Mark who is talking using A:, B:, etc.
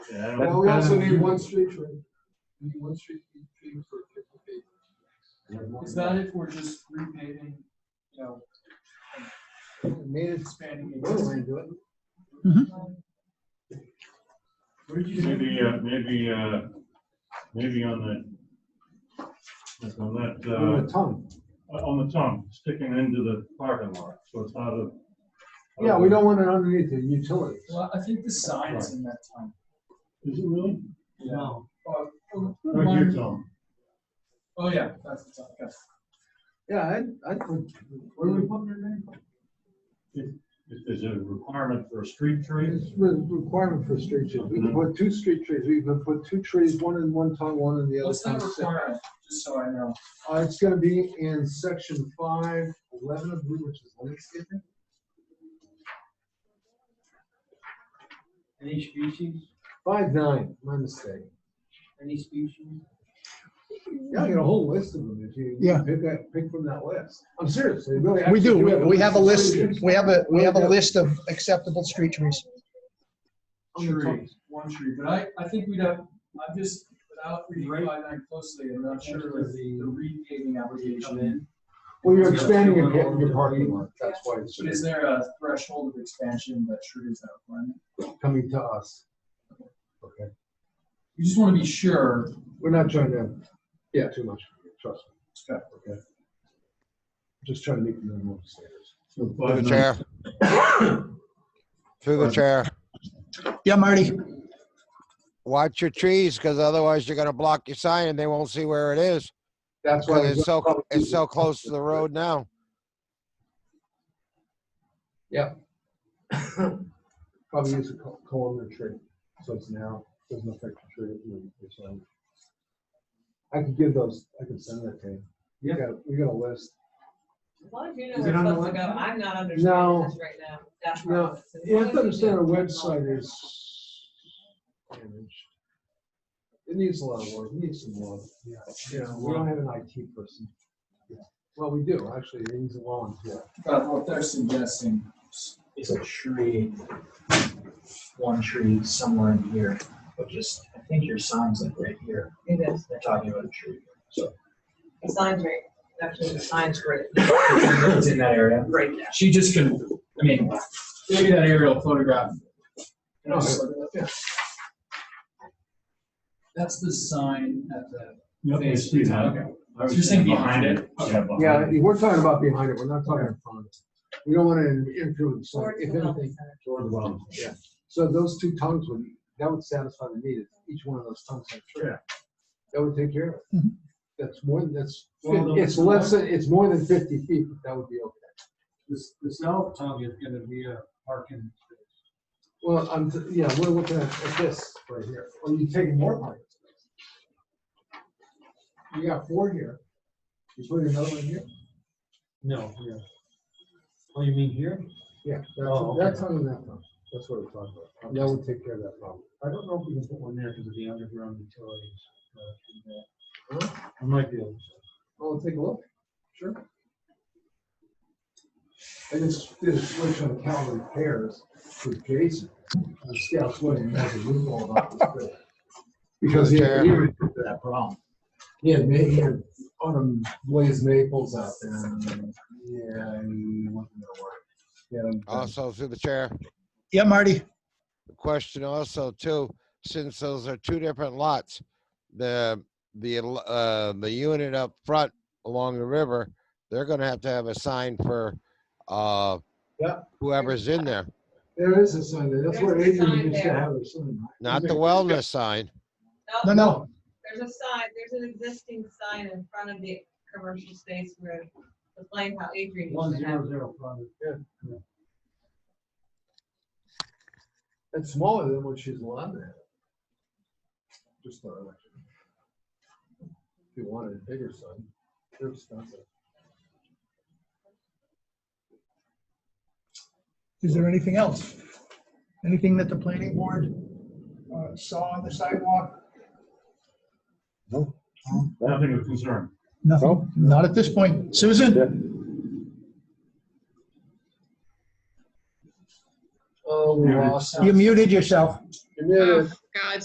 A: Yeah, I don't-
B: Well, we
C: um,
B: also
A: uh,
B: need one street tree. We need one street tree for fifty feet.
D: Is that if we're just repaving, you know,
C: Made it
D: expanding
E: Oh.
C: we're
D: existing?
C: into it.
A: Maybe, uh, maybe, uh, maybe on the, like on that,
C: With
A: uh,
C: a tongue.
A: on the tongue, sticking into the parking lot, so it's out of.
C: Yeah, we don't want it underneath the utilities.
D: Well, I think the sign is in that time.
A: Is it really?
C: No.
D: Oh,
A: Right here, Tom.
D: Oh, yeah, that's the time, yes.
C: Yeah, I'd, I'd put, where do we put it in?
A: Is is it a requirement for a street tree?
C: It's re- requirement for street trees. We can put two street trees. We can put two trees, one in one tongue, one in the other
D: What's that
C: tongue. sep-
D: requirement, just so I know?
C: Uh, it's gonna be in section five, eleven of blue, which is landscaping.
E: Any species,
C: Five, nine, my mistake.
E: any species?
C: Yeah, I got a whole list of them if you. you
F: Yeah.
C: Pick that, pick from that list. I'm serious. they really
F: We
C: actually
F: do, we- we have a list,
C: Trees
F: we have a, we have a list of acceptable street trees.
C: on the
D: Tree,
C: tongue.
D: Oh, one tree, but I, I think we'd have, I'm just, without reading five nine closely, I'm not sure of the the repaving application.
C: Well, you're expanding your, pa- your parking lot. That's why it's
D: But is there a threshold of expansion that triggers that requirement?
C: coming to us. Okay.
D: You just want to be sure
C: We're not trying to, yeah, too much, trust me.
D: Okay.
C: Okay. Just trying to make the minimum standards.
A: So
G: Through
A: five
G: the
A: nine-
G: chair. Through the chair.
F: Yeah, Marty?
G: Watch your trees, because otherwise you're gonna block your sign and they won't see where it is.
C: That's why.
G: Because it's so, it's so close to the road now.
C: Probably use a col- columnar tree, so it's now, doesn't affect the tree. you know, it's, um, I could give those, I could send that to you. We got, we got a list.
H: As long as you
C: Is it
H: know where
C: on
H: it's
C: the
H: supposed to go,
C: website?
H: I'm not understanding
C: No.
H: this right now. That's
C: No.
H: right.
C: You have to understand our website is damaged. It needs a lot of work, it needs some love. Yeah. You know, we don't have an IT person. Yeah. Well, we do, actually, it needs a volunteer.
D: But what they're suggesting is a tree, one tree somewhere in here, but just, I think your sign's like right here.
H: It is.
D: They're talking about a tree.
H: The sign's right, actually, the sign's great.
D: It's in that area.
H: Right now.
D: She just can, I mean, maybe that aerial photograph.
C: No, I-
D: That's the sign at the.
A: Yep, I
D: face
A: see
D: of the
A: that.
D: town.
A: I was
D: You're saying behind it?
A: Yeah, behind
C: Yeah,
A: it.
C: we're talking about behind it, we're not talking in front of it. We don't want to interfere with the sign,
H: Or it's
C: if
H: the wellness
C: anything.
H: center.
A: Toward the well.
C: Yeah, so those two tongues would, that would satisfy the need, if each one of those tongues had a tree.
A: Yeah.
C: That would take care of it.
F: Mhm.
C: That's more, than that's,
E: Well, the-
C: it's less, than- it's more than fifty feet, but that would be okay.
E: This, the south tongue is gonna be a parking space.
C: Well, I'm, t- yeah, we're looking at at this right here, are you taking more parking space? You got four here, you put another one here?
E: No, yeah. Oh, you mean here?
C: Yeah,
E: Oh,
C: that's, that's on that one, that's what we're talking about, that would take care of that problem.
E: I don't know if we can put one there because of the underground utilities. uh, and, uh, I might be able
C: Well, take a look. Sure. I just did a switch on Calvin Pairs with Jason on Scouts Way and had a room all about this. big. Because he had, he had that problem. He had, ma- he had autumn glazed maples out there and, yeah, he wasn't gonna work. Yeah.
G: Also through the chair.
F: Yeah, Marty?
G: The Question also too, since those are two different lots, the, the, uh, the unit up front along the river, they're gonna have to have a sign for, uh,
C: Yeah.
G: whoever's in there,
C: There is a sign there, that's where
H: There's a
C: Adrian
H: sign
C: used to
H: there.
C: have a sign.
G: not the wellness sign.
F: No, no,
H: There's a sign, there's an existing sign in front of the commercial space where the flame, how Adrian
E: One
H: used to have.
E: zero zero five.
C: It's smaller than what she's allowed to have. Just not much. If you wanted a bigger sign, they're expensive.
F: is there anything else? Anything that the planning board uh, saw on the sidewalk?
A: Nothing of concern.
F: Nothing, not at this point. Susan?
C: Oh, we
A: Muted.
C: lost.
H: Oh,
F: You muted yourself.
C: You muted.